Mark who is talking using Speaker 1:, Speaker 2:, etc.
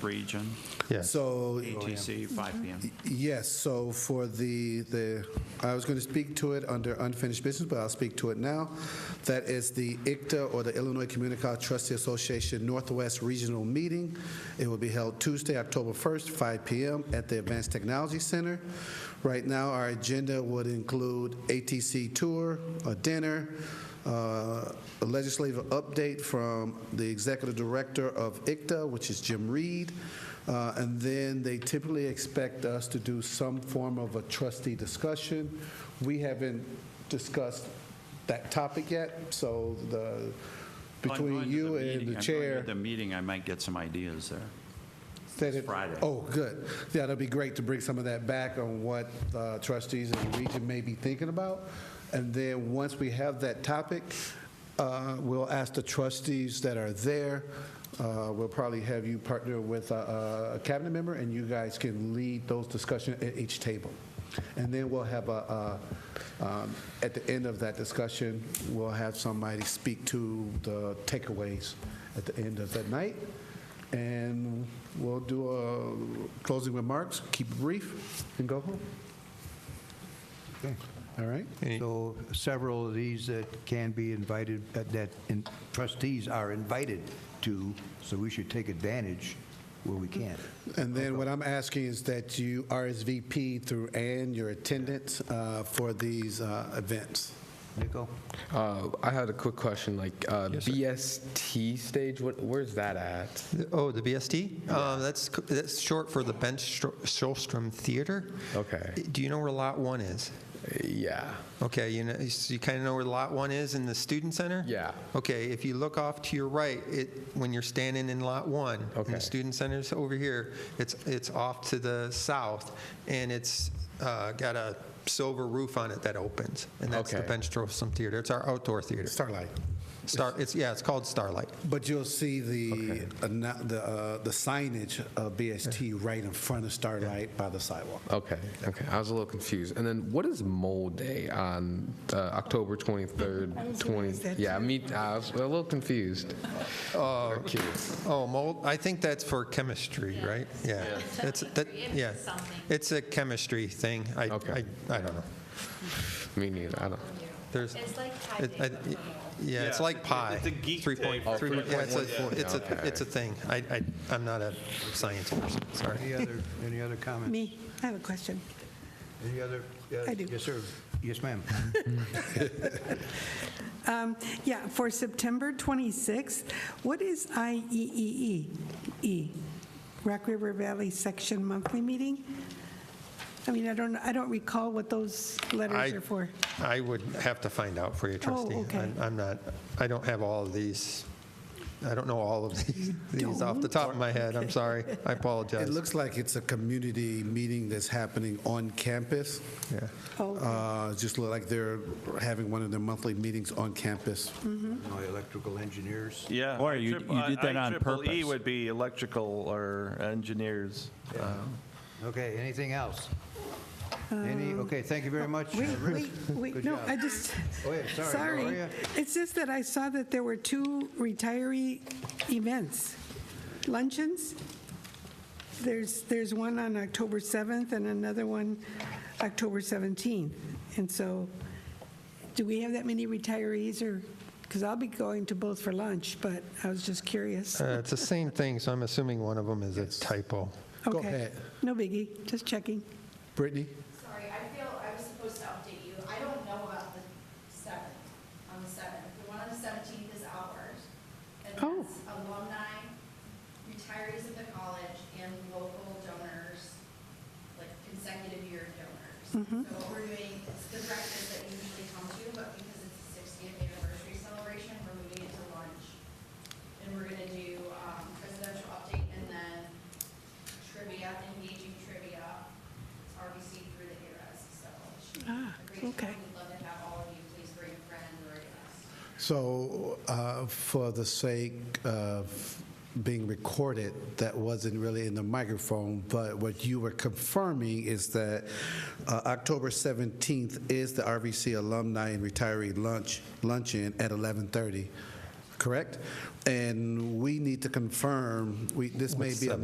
Speaker 1: region,
Speaker 2: Yes.
Speaker 3: So,
Speaker 1: ATC, 5 PM.
Speaker 3: yes, so for the, the, I was going to speak to it under unfinished business, but I'll speak to it now. That is the ICTA, or the Illinois Community College Trustee Association Northwest Regional Meeting. It will be held Tuesday, October 1st, 5 PM at the Advanced Technology Center. Right now, our agenda would include ATC tour, a dinner, uh, a legislative update from the executive director of ICTA, which is Jim Reed. Uh, And then they typically expect us to do some form of a trustee discussion. We haven't discussed that topic yet, so the,
Speaker 1: If I'm going
Speaker 3: between
Speaker 1: to
Speaker 3: you
Speaker 1: meeting-
Speaker 3: and the
Speaker 1: if I'm going to
Speaker 3: chair.
Speaker 1: The meeting, I might get some ideas there.
Speaker 3: that it-
Speaker 1: Friday.
Speaker 3: Oh, good. Yeah, that'd be great to bring some of that back on what uh, trustees in the region may be thinking about. And then, once we have that topic, uh, we'll ask the trustees that are there, uh, we'll probably have you partner with a a cabinet member, and you guys can lead those discussions at each table. And then we'll have a, a, um, at the end of that discussion, we'll have somebody speak to the takeaways at the end of that night. And we'll do a closing remarks, keep it brief, and go home. All right?
Speaker 4: So several of these that can be invited, uh, that- that in- trustees are invited to, so we should take advantage where we can.
Speaker 3: And then what I'm asking is that you RSVP through Ann, your attendance uh, for these uh, events.
Speaker 4: Nico?
Speaker 5: Uh, I had a quick question, like uh, BST stage. What, where's that at?
Speaker 2: Oh, the BST? Uh, That's, c- that's short for the Bench Stro- Shostrom Theater.
Speaker 5: Okay.
Speaker 2: Do you know where Lot 1 is?
Speaker 5: Uh, Yeah.
Speaker 2: Okay, you know, so you kind of know where Lot 1 is in the Student Center?
Speaker 5: Yeah.
Speaker 2: Okay, if you look off to your right, it, when you're standing in Lot 1, and
Speaker 5: Okay.
Speaker 2: the Student Center's over here, it's, it's off to the south, and it's uh, got a silver roof on it that opens, and that's the
Speaker 5: Okay.
Speaker 2: Bench Shostrom Theater. It's our outdoor theater.
Speaker 3: Starlight.
Speaker 2: Star, it's, yeah, it's called Starlight.
Speaker 3: But you'll see the, anno- the uh, the signage of BST right in front of Starlight by the sidewalk.
Speaker 5: Okay. Okay. I was a little confused. And then what is Mole Day on uh, October 23rd?
Speaker 6: I was gonna
Speaker 5: 20
Speaker 6: ask that
Speaker 5: yeah.
Speaker 6: too.
Speaker 5: Me. I was a little confused. Oh.
Speaker 2: Oh, mold, I think that's for chemistry, right? Yeah. It's, that, yeah. It's a chemistry thing. I,
Speaker 5: Okay.
Speaker 2: I, I don't know.
Speaker 5: Me neither. I don't.
Speaker 2: There's.
Speaker 6: It's like Pi
Speaker 2: it- I-
Speaker 6: Day.
Speaker 2: Yeah, it's like pie. It's a geek day.
Speaker 5: Oh,
Speaker 2: Yeah, it's
Speaker 5: 3.1,
Speaker 2: a, it's
Speaker 5: yeah.
Speaker 2: a, it's a thing. I, I, I'm not a science person, sorry.
Speaker 4: Any other, any other comments?
Speaker 6: Me, I have a question.
Speaker 4: Any other? yeah,
Speaker 6: I do.
Speaker 4: Yes, sir. Yes, ma'am.
Speaker 6: Um, Yeah, for September 26th, what is IEEE? E, Rock River Valley Section Monthly Meeting? I mean, I don't, I don't recall what those letters
Speaker 2: I-
Speaker 6: are for. Oh,
Speaker 2: I would have to find out for you, trustee.
Speaker 6: okay.
Speaker 2: I'm- I'm not, I don't have all of these, I don't know all of these, these off the top of my head, I'm sorry. I apologize.
Speaker 3: It looks like it's a community meeting that's happening on campus.
Speaker 2: Yeah.
Speaker 6: Oh, okay.
Speaker 3: Uh, Just look like they're having one of their monthly meetings on campus.
Speaker 4: No, Electrical engineers.
Speaker 7: Yeah.
Speaker 1: Or you-
Speaker 7: triple-
Speaker 1: you did that on
Speaker 7: IEEE
Speaker 1: purpose.
Speaker 7: would be electrical or engineers.
Speaker 4: Okay, anything else? Any, okay, thank you very much.
Speaker 6: Um, oh, Wait,
Speaker 4: Rick.
Speaker 6: wait, wait,
Speaker 4: Good
Speaker 6: no,
Speaker 4: job.
Speaker 6: I just,
Speaker 4: Oh, yeah, sorry, how are
Speaker 6: sorry.
Speaker 4: ya?
Speaker 6: It's just that I saw that there were two retiree events, luncheons. There's, there's one on October 7th and another one October 17th. And so, do we have that many retirees or, because I'll be going to both for lunch, but I was just curious.
Speaker 2: Uh, It's the same thing, so I'm assuming one of them is a typo.
Speaker 3: go
Speaker 6: Okay.
Speaker 3: ahead.
Speaker 6: No biggie, just checking.
Speaker 3: Brittany?
Speaker 8: Sorry, I feel I was supposed to update you. I don't know about the seventh, on the seventh. The one on the seventeenth is ours. And
Speaker 6: Oh.
Speaker 8: that's alumni, retirees of the college, and local donors, like consecutive year donors.
Speaker 6: Mm-hmm.
Speaker 8: So what we're doing, it's the breakfast that you usually come to, but because it's the sixtieth anniversary celebration, we're moving it to lunch. And we're gonna do um, presidential update and then trivia, engaging trivia, RBC through the eras, so. she
Speaker 6: Ah,
Speaker 8: agreed.
Speaker 6: okay.
Speaker 8: We'd love to have all of you, please bring a friend or a guest.
Speaker 3: So uh, for the sake of being recorded, that wasn't really in the microphone, but what you were confirming is that uh, October 17th is the RVC Alumni and Retiree Lunch, luncheon at 11:30, correct? And we need to confirm, we, this may be a